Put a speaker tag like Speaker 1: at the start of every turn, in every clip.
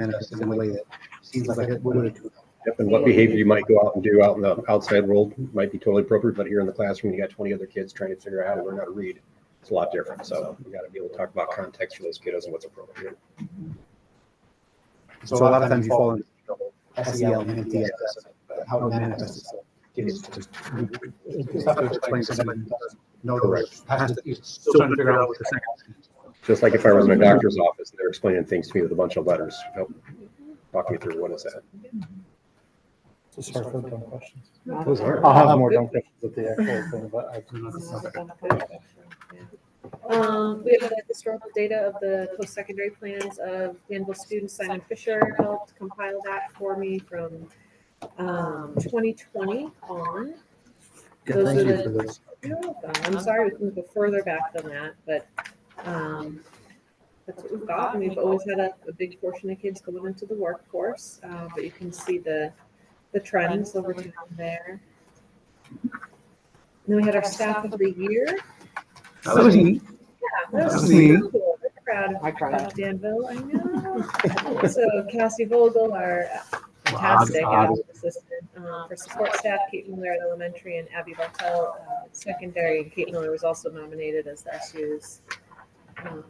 Speaker 1: at us in a way that seems like it would.
Speaker 2: Yep, and what behavior you might go out and do out in the outside world might be totally appropriate, but here in the classroom, you got twenty other kids trying to figure out how to learn how to read. It's a lot different, so we gotta be able to talk about context for those kiddos and what's appropriate.
Speaker 1: So a lot of times you fall into trouble, SEL and MTS, but how it manifests itself. It's just, it's tough to explain to somebody who doesn't know the words, has to, is still trying to figure out what the second option is.
Speaker 2: Just like if I was in a doctor's office, and they're explaining things to me with a bunch of letters. Help Walk me through, what is that?
Speaker 3: It's hard for dumb questions.
Speaker 2: Those are,
Speaker 3: I'll have more dumb questions at the actual thing, but I do not.
Speaker 4: Um, we have the historical data of the post-secondary plans of Danville students. Simon Fisher helped compile that for me from, um, twenty twenty on.
Speaker 3: Yeah,
Speaker 4: Those
Speaker 3: thank
Speaker 4: are
Speaker 3: you
Speaker 4: the-
Speaker 3: for this.
Speaker 4: You're welcome. I'm sorry we couldn't go further back than that, but, um, that's what we've got. And we've always had a, a big portion of kids going into the workforce, uh, but you can see the, the trends over time there. And Then we had our staff of the year.
Speaker 1: That was neat.
Speaker 4: Yeah, that was
Speaker 1: Mhm.
Speaker 4: so cool. We're Proud of
Speaker 5: I cried.
Speaker 4: of Danville, I know. So Cassie Vogel, our fantastic
Speaker 1: Wow,
Speaker 4: assistant um, for support staff, Kate Miller at elementary, and Abby Bartel uh, at secondary. And Kate Miller was also nominated as SU's um,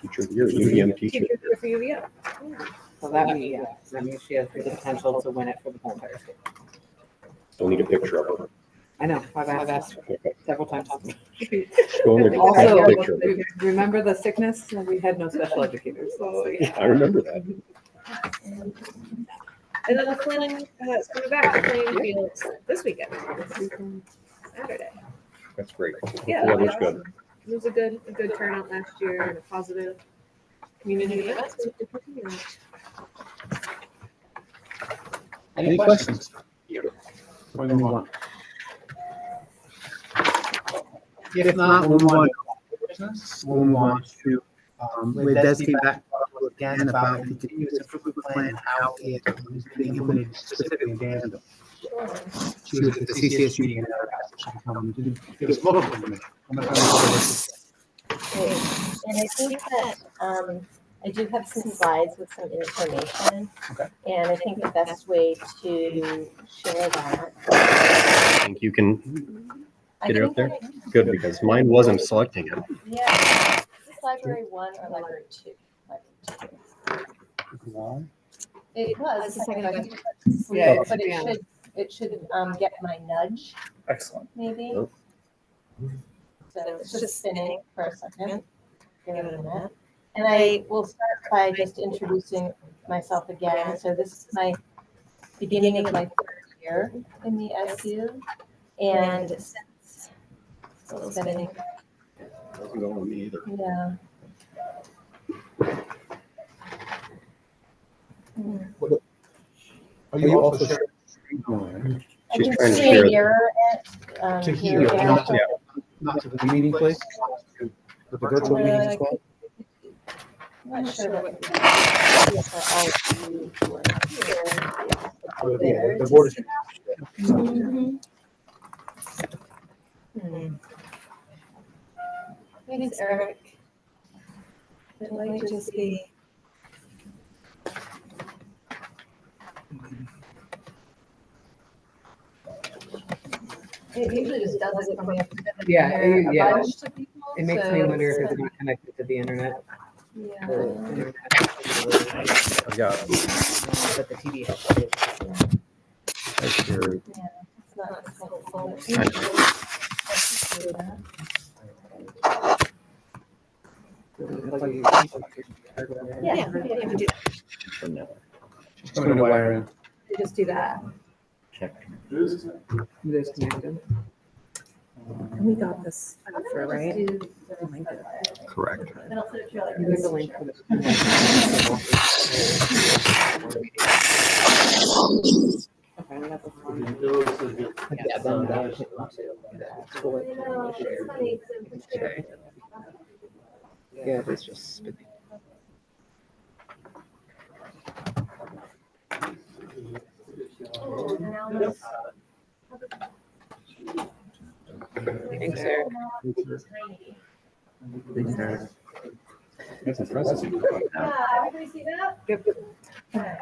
Speaker 2: teacher of the year, UVM teacher.
Speaker 4: teacher for UVM. Yeah.
Speaker 5: So that means, yeah, that means she has the potential to win it for the whole entire school.
Speaker 2: Don't need a picture of her.
Speaker 5: I know, I've I've asked her
Speaker 2: Okay.
Speaker 5: several times.
Speaker 2: Go in there, take
Speaker 5: Also,
Speaker 2: a picture of her.
Speaker 5: remember the sickness? We had no special educators.
Speaker 4: Oh, yeah.
Speaker 2: I remember that.
Speaker 4: And then the Flynn, uh, it's coming back to playing fields this weekend, this weekend, Saturday.
Speaker 2: That's great.
Speaker 4: Yeah,
Speaker 2: The
Speaker 4: that'd be
Speaker 2: weather's good.
Speaker 4: awesome. It was a good, a good turnout last year and a positive community event. so we could continue that.
Speaker 1: Any questions? We're gonna move on. If not, we'll move on. to business. We'll move on to, um, with Desi back to us again about the continuous improvement plan, how it is being implemented specifically in Danville. She was at the CCS meeting and our she come and give us local information. I'm gonna turn it over to Desi.
Speaker 6: Great. And I think that, um, I do have some slides with some information.
Speaker 1: Okay.
Speaker 6: And I think the best way to share that.
Speaker 2: I think you can,
Speaker 6: I
Speaker 2: Get it up
Speaker 6: think that I-
Speaker 2: good, because mine wasn't selecting it.
Speaker 6: Yeah, is this library one or library two? Library two. It was, the second I did it.
Speaker 5: Yeah, it's
Speaker 6: But it
Speaker 5: down.
Speaker 6: should, it should, um, get my nudge,
Speaker 3: Excellent.
Speaker 6: maybe.
Speaker 2: Oh.
Speaker 6: So it's just spinning for a second. Give it a minute. And I will start by just introducing myself again. So this is my beginning of my third year in the SU. And since it's been,
Speaker 2: Wasn't going with me either.
Speaker 6: yeah,
Speaker 3: Are you also sharing?
Speaker 6: I
Speaker 2: She's
Speaker 6: can
Speaker 2: trying to
Speaker 6: see a
Speaker 2: share-
Speaker 6: mirror it. um,
Speaker 3: To
Speaker 6: here,
Speaker 3: here,
Speaker 6: yeah.
Speaker 1: not to- Not to the meeting place, but the virtual meetings as well.
Speaker 6: I'm not sure what. for all of you who are here.
Speaker 1: Yeah, the board is-
Speaker 6: Mhm. Hmm. Thanks, Eric. It might just be. It usually just does it when we have.
Speaker 5: Yeah, it-
Speaker 6: a
Speaker 5: yeah.
Speaker 6: bunch of people,
Speaker 5: It makes
Speaker 6: so
Speaker 5: me wonder if
Speaker 6: it's,
Speaker 5: it's not connected to the internet.
Speaker 6: Yeah.
Speaker 5: or internet.
Speaker 2: I've got
Speaker 5: But the TV helps.
Speaker 2: I shared.
Speaker 6: Yeah, it's not helpful.
Speaker 2: I-
Speaker 6: Yeah, we can do that.
Speaker 3: She's coming to wire in.
Speaker 6: We just do that.
Speaker 5: There's connected.
Speaker 7: We got this for, right?
Speaker 2: Correct.
Speaker 5: There's a link for the. Okay, that's the one. Yeah, then that came up too. That's what we shared. Yeah, it's just spinning. Thanks, Eric.
Speaker 2: That's impressive.
Speaker 4: Yeah, everybody see that?
Speaker 5: Yep.
Speaker 6: Hi.